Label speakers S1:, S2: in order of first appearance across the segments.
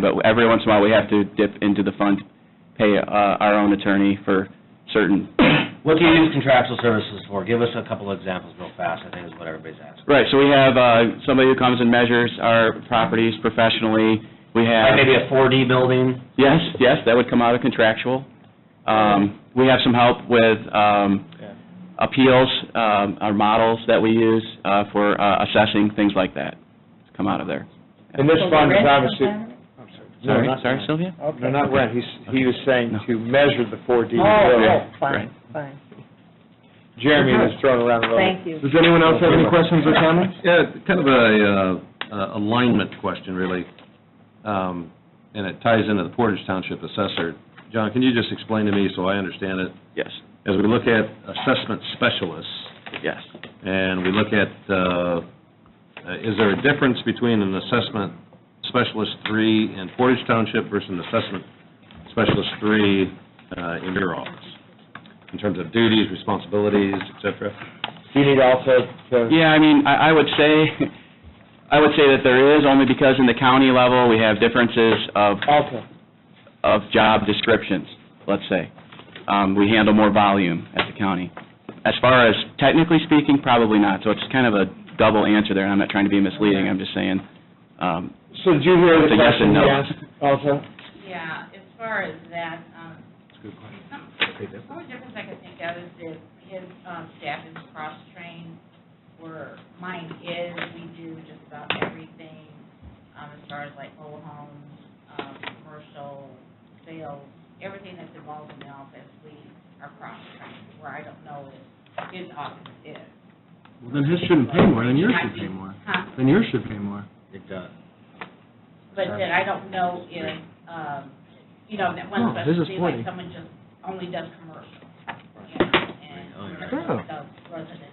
S1: but every once in a while, we have to dip into the fund, pay uh, our own attorney for certain.
S2: What do you use contractual services for? Give us a couple of examples real fast, I think is what everybody's asking.
S1: Right, so we have uh, somebody who comes and measures our properties professionally. We have.
S2: Like maybe a 4D building?
S1: Yes, yes, that would come out of contractual. Um, We have some help with um, appeals, um, our models that we use uh, for uh, assessing, things like that, come out of there.
S3: And this
S4: So the
S3: fund is
S4: rent
S3: obviously,
S4: comes out of it?
S3: I'm sorry. No,
S1: Sorry,
S3: not-
S1: sorry, Sylvia?
S3: No, not rent, he's, he was saying
S1: No.
S3: to measure the 4D.
S4: Oh,
S3: building.
S4: oh,
S1: Right.
S4: fine, fine.
S3: Jeremy was throwing around a little.
S4: Uh-huh. Thank you.
S3: Does anyone else have any questions or comments?
S5: Yeah, kind of a uh, uh, alignment question, really, Um, and it ties into the Portage Township assessor. John, can you just explain to me, so I understand it,
S1: Yes,
S5: as we look at assessment specialists,
S1: yes.
S5: and we look at, uh, is there a difference between an assessment specialist three in Portage Township versus an assessment specialist three uh, in your office, in terms of duties, responsibilities, et cetera?
S3: Do you need also to?
S1: Yeah, I mean, I I would say, I would say that there is, only because in the county level, we have differences of
S3: Okay.
S1: of job descriptions, let's say. Um, We handle more volume at the county. As far as technically speaking, probably not, so it's kind of a double answer there, and I'm not trying to be misleading, I'm just saying, um,
S3: So did you hear
S1: It's
S3: the
S1: a yes and
S3: question he
S1: no.
S3: asked also?
S6: Yeah, as far as that, um, some- the only difference I could think of is that his um, staff is cross-trained, where mine is, we do just about everything, um, as far as like mobile homes, um, commercial, sales, everything that's involved in the office, we are cross-trained, where I don't know if his office is.
S7: Well, then his shouldn't pay more, then yours should pay more.
S6: Huh?
S7: Then yours should pay more.
S2: It does.
S6: But then I don't know if, um, you know, that
S7: No,
S6: one
S7: this is
S6: specialty, like
S7: forty.
S6: someone just only does commercial, you know, and
S8: Oh,
S7: Oh.
S6: commercial does residential.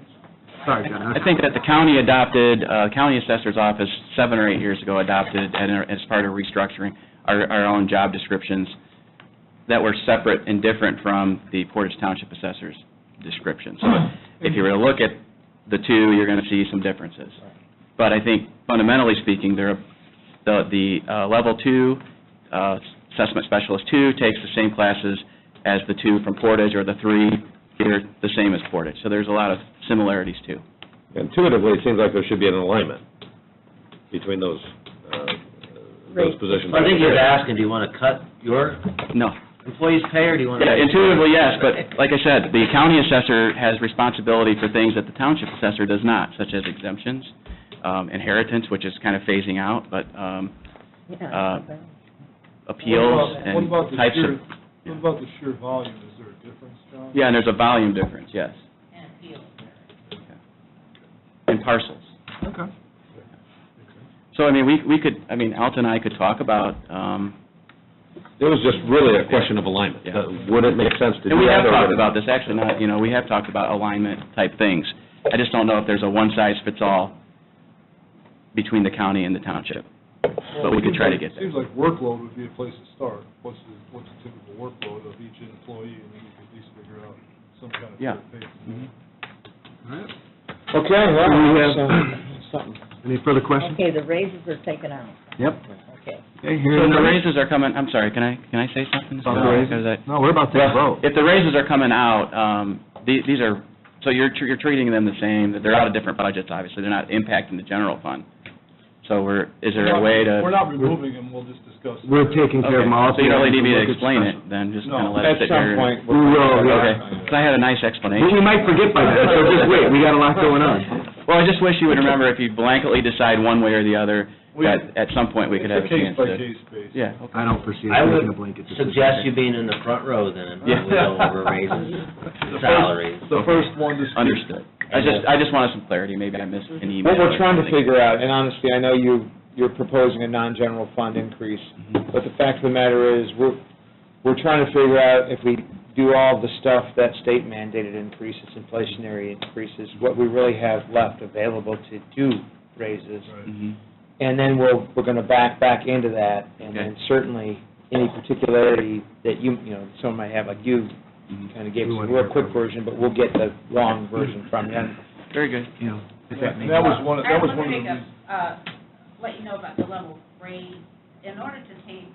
S7: Sorry, John.
S1: I think that the county adopted, uh, county assessor's office seven or eight years ago adopted, and as part of restructuring, our, our own job descriptions that were separate and different from the Portage Township assessor's description. So if you were to look at the two, you're going to see some differences. But I think fundamentally speaking, there, are- the, the uh, level two, uh, assessment specialist two takes the same classes as the two from Portage, or the three here, the same as Portage. So there's a lot of similarities too.
S5: Intuitively, it seems like there should be an alignment between those, uh, those
S4: Right.
S5: positions.
S2: I think he was asking, do you want to cut your
S1: No.
S2: employees' pay, or do you want to?
S1: Yeah, intuitively, yes, but like I said, the county assessor has responsibility for things that the township assessor does not, such as exemptions, um, inheritance, which is kind of phasing out, but um,
S4: Yeah.
S1: Uh, appeals and types of... yeah.
S7: about the sheer volume? Is there a difference, John?
S1: Yeah, and there's a volume difference, yes,
S6: And appeals.
S1: in parcels.
S7: Okay.
S1: So, I mean, we we could, I mean, Alton and I could talk about, um,
S5: It was just really a question of alignment.
S1: Yeah.
S5: Would it make sense to do that?
S1: and we have
S5: or would
S1: talked
S5: it-
S1: about this, actually, not, you know, we have talked about alignment-type things. I just don't know if there's a one-size-fits-all between the county and the township, but we could try to get there.
S8: Seems like workload would be a place to start. What's the, what's the typical workload of each employee, and then you could at least figure out some kind of
S1: Yeah. Mm-hmm.
S8: fair pay.
S3: Okay, well,
S7: Do we
S3: that's,
S7: have-
S3: uh, something.
S7: Any further questions?
S4: Okay, the raises are taken out,
S7: Yep.
S4: okay.
S7: Okay,
S1: So
S7: hearing
S1: if the
S7: none.
S1: raises are coming, I'm sorry, can I, can I say something?
S7: About the raises?
S1: Because I-
S7: No, we're about to vote.
S1: If the raises are coming out, um, the- these are, so you're, tr- you're treating them the same, that they're out of different budgets, obviously, they're not impacting the general fund. So we're, is there a way to?
S8: We're not removing them, we'll just discuss. it.
S7: We're taking care of them all.
S1: Okay, So you don't really need me
S7: We'll
S1: to
S7: get
S1: explain
S7: special.
S1: it, then, just
S8: No,
S1: kind of let
S3: At
S1: it sit
S3: some
S1: here.
S3: point.
S7: We will,
S1: Okay,
S7: yeah.
S1: 'Cause I had a nice
S7: But
S1: explanation.
S7: we might forget by then, so just wait, we got a lot going on.
S1: Well, I just wish you would remember, if you blanketly decide one way or the other,
S8: We-
S1: that at some point we could have a chance to.
S8: It's a case-by-case basis.
S1: Yeah,
S7: I don't foresee
S2: I
S7: us
S2: would
S7: making a blanket decision.
S2: suggest you being in the front row then,
S1: Yeah.
S2: when we go over raises,
S8: The first-
S2: salaries.
S8: The first one to speak.
S1: understood. I just, I just wanted some clarity, maybe I missed an email.
S3: What we're trying
S1: or
S3: to
S1: something.
S3: figure out, and honestly, I know you, you're proposing a non-general fund increase,
S1: Mm-hmm.
S3: but the fact of the matter is, we're, we're trying to figure out if we do all the stuff that state mandated increases, inflationary increases, what we really have left available to do raises.
S8: Right.
S1: Mhm.
S3: And then we'll, we're gonna back, back into that, and then
S1: Okay.
S3: certainly, any particularity that you, you know, someone might have, like you, kinda gave us a
S7: Mm-hmm. We want to
S3: real
S7: hear
S3: quick
S7: from you.
S3: version, but we'll get the long version from you.
S1: Very good.
S7: You know, if that makes
S8: And that was one,
S6: I
S8: that was
S6: want
S8: one
S6: to
S8: of
S6: make
S8: the
S6: a,
S8: reasons.
S6: uh, let you know about the level of grade in order to take